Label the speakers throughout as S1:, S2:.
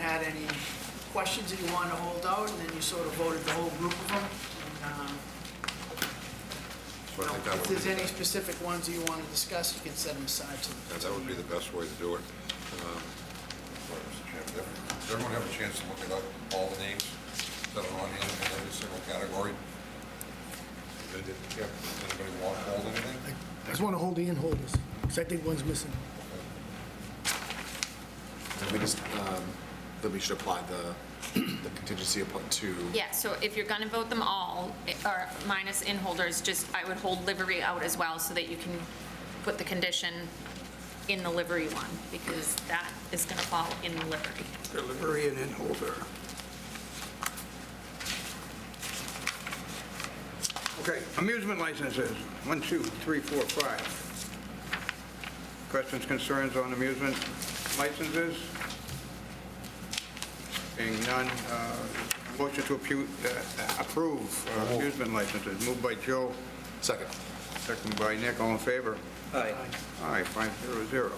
S1: had any questions that you wanted to hold out, and then you sort of voted the whole group of them. And, um,
S2: So I think that
S1: If
S2: would
S1: there's
S2: be,
S1: any specific ones that you want to discuss, you can set them aside to the...
S2: that that would be the best way to do it. Um, sorry, Mr. Chairman, Does does everyone have a chance to look it up, all the names that are on here in every single category? Did- did- yeah, Does anybody want to hold anything?
S3: I just want to hold the in holders, because I think one's missing.
S4: We just, um, that we should apply the the contingency upon to.
S5: Yeah, so if you're going to vote them all, eh, or minus in holders, just, I would hold livery out as well, so that you can put the condition in the livery one, because that is going to fall in the livery.
S6: Delivery and in holder. Okay, amusement licenses, one, two, three, four, five. Questions, concerns on amusement licenses? Being none, uh, motion to appu- uh, approve uh, amusement licenses, moved by Joe,
S4: Second.
S6: second by Nick, all in favor?
S7: Aye.
S6: Aye, five zero zero.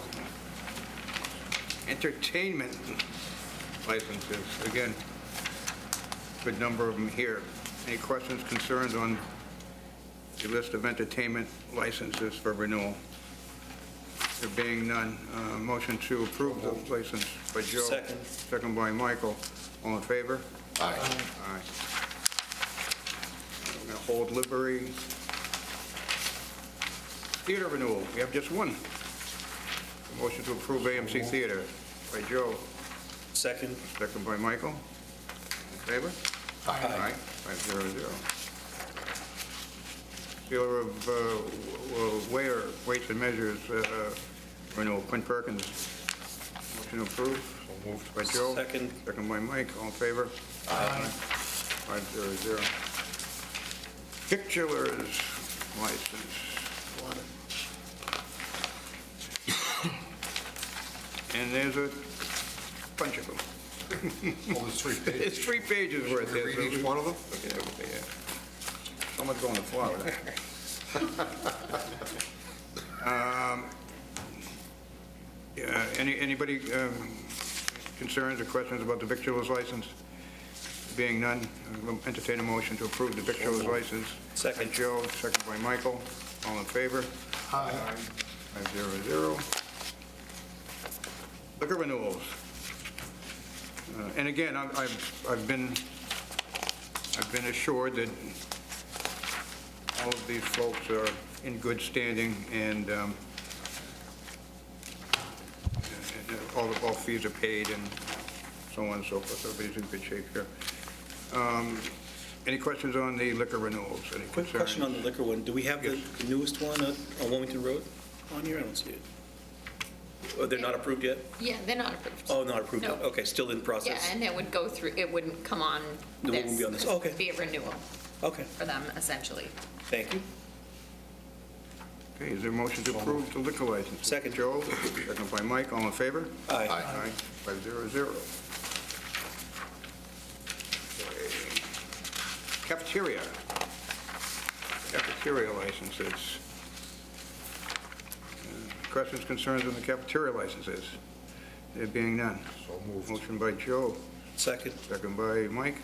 S6: Entertainment licenses, again, good number of them here. Any questions, concerns on the list of entertainment licenses for renewal? There being none, uh, motion to approve the license by Joe.
S7: Second.
S6: Second by Michael. All in favor?
S4: Aye.
S6: Aye. We're going to hold livery. Theater renewal, we have just one. Motion to approve AMC Theater by Joe,
S7: Second,
S6: second by Michael. In favor? Aye, five zero zero. Sealer of uh, w- w- Ware, Weights and Measures, uh, renewal, Quinn Perkins. Motion to approve. Moved by Joe.
S7: Second.
S6: Second by Mike, all in favor? Aye. Five zero zero. Victualers license. And there's a bunch of them.
S2: Well, there's three pages.
S6: It's three pages worth.
S2: Should we read
S6: there's-
S2: each one of them?
S6: Yeah, yeah. Someone's going to Florida. Um, yeah, Any, anybody um, concerns or questions about the victualers license? Being none, I'll entertain a motion to approve the victualers license.
S7: Second.
S6: By Joe, second by Michael. All in favor? Aye. Five zero zero. Liquor renewals. Uh, And again, I've- I've, I've been, I've been assured that all of these folks are in good standing, and um, and all, all fees are paid, and so on and so forth, everybody's in good shape here. Um, Any questions on the liquor renewals? Any
S7: quick question on
S6: concerns?
S7: the liquor one. Do we have the
S6: Yes.
S7: the newest one on on Wilmington Road on here? I don't see it. Oh, they're not approved yet?
S8: Yeah, they're not approved.
S7: Oh, not approved yet.
S8: No.
S7: Okay, still in
S8: Yeah,
S7: process.
S8: and it would go through, it wouldn't come on
S7: It
S8: this.
S7: wouldn't be on this. Okay.
S8: It'd Be a renewal
S7: Okay,
S8: for them, essentially.
S7: thank you.
S6: Okay, is there a motion to approve the liquor license?
S7: Second.
S6: Joe, second by Mike, all in favor?
S7: Aye.
S4: Aye.
S6: Five zero zero. Cafeteria. Cafeteria licenses. Uh, Questions, concerns on the cafeteria licenses? There being none.
S2: So moved.
S6: Motion by Joe,
S7: Second,
S6: second by Mike.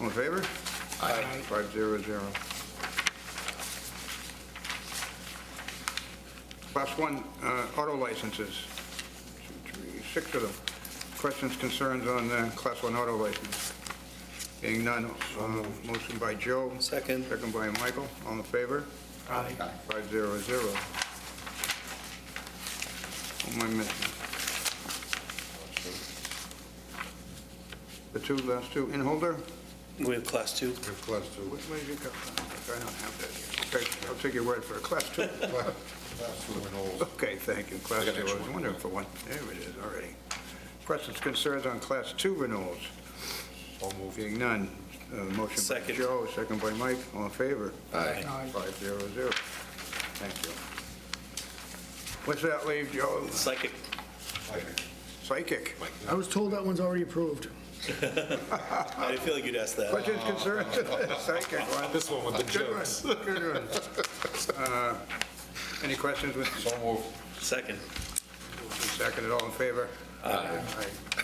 S6: All in favor? Aye. Five zero zero. Class one uh, auto licenses, Two, three, six of them. Questions, concerns on the class one auto license? Being none, uh, motion by Joe.
S7: Second.
S6: Second by Michael, all in favor? Aye. Five zero zero. What am I missing? The two, last two, in holder?
S7: we have class two.
S2: Give class two.
S6: Which way did you go? I don't have that. Okay, I'll take your word for it. Class two.
S2: Class class two and all.
S6: Okay, thank you. Class
S2: I
S6: two,
S2: got
S6: I
S2: extra
S6: was
S2: one.
S6: wondering for one. There it is, already. Questions, concerns on class two renewals?
S2: So moved.
S6: Being none, uh, motion by
S7: Second.
S6: Joe, second by Mike, all in favor?
S4: Aye.
S6: Five zero zero. Thank you. What's that leave, Joe?
S7: Psychic.
S2: Aye.
S6: Psychic.
S3: I was told that one's already approved.
S7: I didn't feel like you'd ask that.
S6: Questions, concerns? Psychic one.
S4: This one with the
S6: Good one, good one. Uh, Any questions with
S2: So moved.
S7: Second.
S6: Second, all in favor? Aye.